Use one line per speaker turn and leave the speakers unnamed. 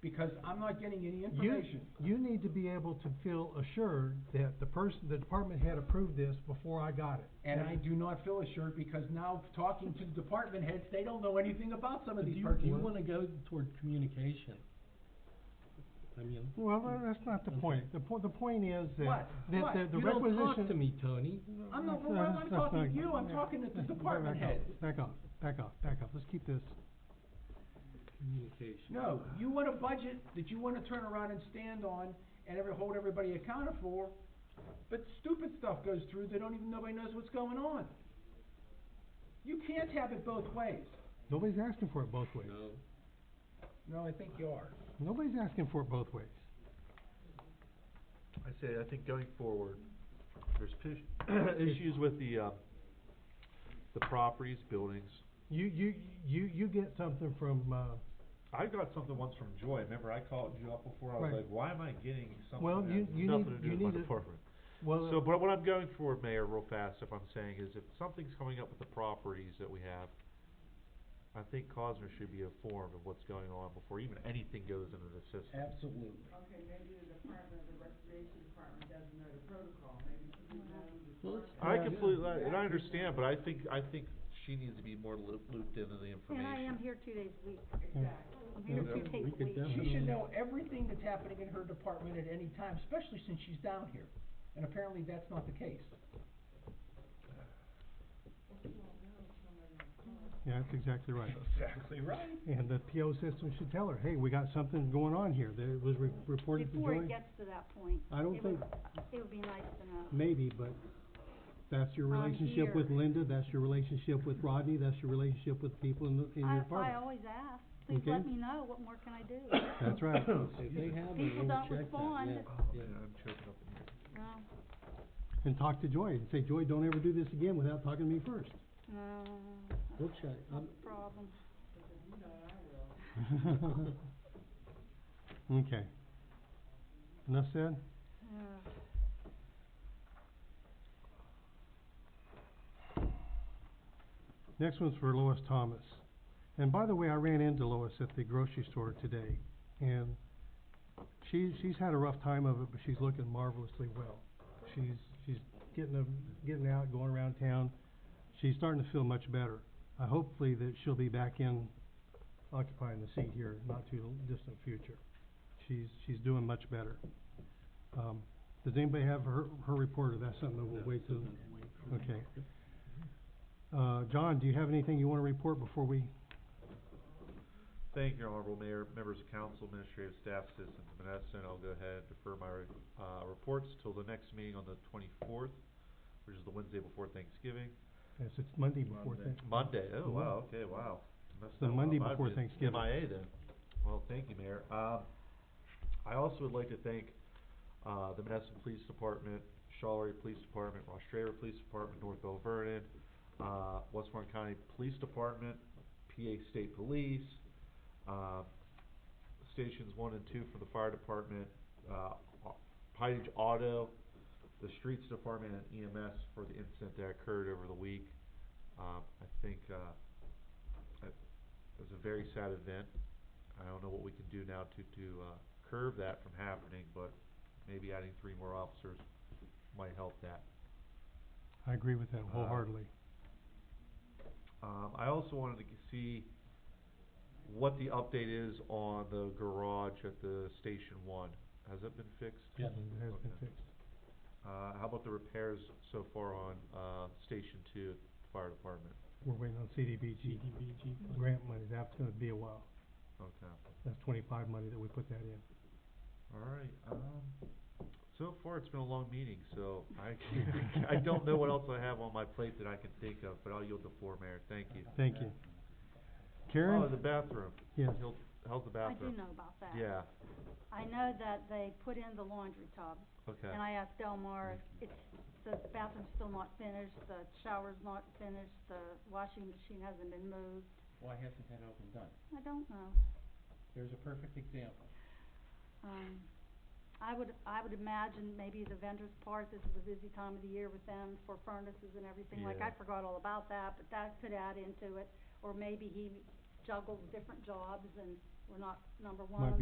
because I'm not getting any
You,
information.
you need to be able to feel assured that the person, the department had approved this before I got it.
And I do not feel assured because now talking to department heads, they don't know anything about some of
Do
these
you, do
purchases.
you wanna go toward communication? I mean.
Well, no, that's not the point. The po- the point is that,
What?
that
What?
the, the
You don't
requisition.
talk to me, Tony.
I'm not,
That's-
well, I'm
that's-
not
that's
talking to
not-
you, I'm
yeah.
talking to the
Back
department
up,
heads.
Back up, back up, back up. Let's keep this.
Communication.
No, you want a budget that you wanna turn around and stand on and ever, hold everybody accountable for, but stupid stuff goes through, they don't even, nobody knows what's going on. You can't have it both ways.
Nobody's asking for it both ways.
No.
No, I think you are.
Nobody's asking for it both ways.
I say, I think going forward, there's pis- issues with the, uh, the properties, buildings.
You, you, you, you get something from, uh,
I got something once from Joy, remember I called you up before, I was
Right.
like, why am I getting something
Well,
that
you-
has
you need-
nothing to do
you
with my
need to-
department?
well. uh,
So, but what I'm going for, Mayor, real fast, if I'm saying, is if something's coming up with the properties that we have, I think Cosner should be informed of what's going on before even anything goes into the system.
Absolutely.
Okay, maybe the department, the recreation department doesn't know the protocol, maybe you know the
Well, it's-
I
Yeah.
completely, and I understand, but I think, I think she needs to be more loop- looped into the information.
And I am here two days a week.
Exactly.
I'm here
Yeah,
two days
we
a
could
week.
definitely-
She should know everything that's happening in her department at any time, especially since she's down here. And apparently that's not the case.
Yeah, that's exactly right.
Exactly right.
And the PO system should tell her, hey, we got something going on here. That it was re- reported to
Before
Joy.
it gets to that point.
I don't
it would-
think-
It would be nice to know.
Maybe, but that's your
I'm
relationship with
here.
Linda, that's your relationship with Rodney, that's your relationship with people in the, in
I,
your
I
department.
always ask, please
Okay.
let me know, what more can I do?
That's right.
If they have it,
People
we'll
don't
check that,
respond.
yeah,
Oh,
yeah.
man, I'm choking up in here.
No,
And talk to Joy and say, Joy, don't ever do this again without talking to me first.
no,
We'll
uh, that's
check,
not
I'm,
the problem.
Okay. Enough said?
Yeah.
Next one's for Lois Thomas. And by the way, I ran into Lois at the grocery store today, and she, she's had a rough time of it, but she's looking marvelously well. She's, she's getting, a- getting out, going around town. She's starting to feel much better. I hopefully that she'll be back in occupying the seat here, not too distant future. She's, she's doing much better. Um, does anybody have her, her report, or that's something that we'll wait till? Okay. Uh, John, do you have anything you wanna report before we
Thank you, Honorable Mayor, members of council, administrative staff, citizens of Menneson. I'll go ahead and defer my, re- uh, reports till the next meeting on the twenty-fourth, which is the Wednesday before Thanksgiving.
Yes, it's Monday before
Monday.
Thanksgiving.
Monday, oh,
Mhm.
wow, okay, wow. Messed
The
that one
Monday
up. I've
before
been
Thanksgiving.
MIA then. Well, thank you, Mayor. Um, I also would like to thank, uh, the Menneson Police Department, Charlevoix Police Department, Ross Strayer Police Department, North Bell Vernon, uh, Westmoreland County Police Department, PA State Police, uh, stations one and two for the fire department, uh, Au- Pine Auto, the streets department and EMS for the incident that occurred over the week. Um, I think, uh, it was a very sad event. I don't know what we can do now to, to, uh, curb that from happening, but maybe adding three more officers might help that.
I agree with that wholeheartedly.
Um, I also wanted to g- see what the update is on the garage at the station one. Has it been fixed?
Yeah.
It has been
Okay.
fixed.
Uh, how about the repairs so far on, uh, station two, fire department?
We're waiting on CDBG
GDBG.
grant money. That's gonna be a while.
Okay.
That's twenty-five money that we put that in.
Alright, um, so far it's been a long meeting, so I, I don't know what else I have on my plate that I can think of, but I'll yield the floor, Mayor, thank you.
Thank you.
Oh,
Karen?
the bathroom.
Yes.
He'll- How's the
I do
bathroom?
know about that.
Yeah,
I know that they put in the laundry tub,
okay.
and I asked Delmar, if it's, the bathroom's still not finished, the shower's not finished, the washing machine hasn't been moved.
Why hasn't that all been done?
I don't know.
There's a perfect example.
Um, I would, I would imagine maybe the vendor's part, this is a busy time of the year with them for furnaces and everything, like, I
Yeah.
forgot all about that, but that could add into it. Or maybe he juggles different jobs and we're not number one
Might
on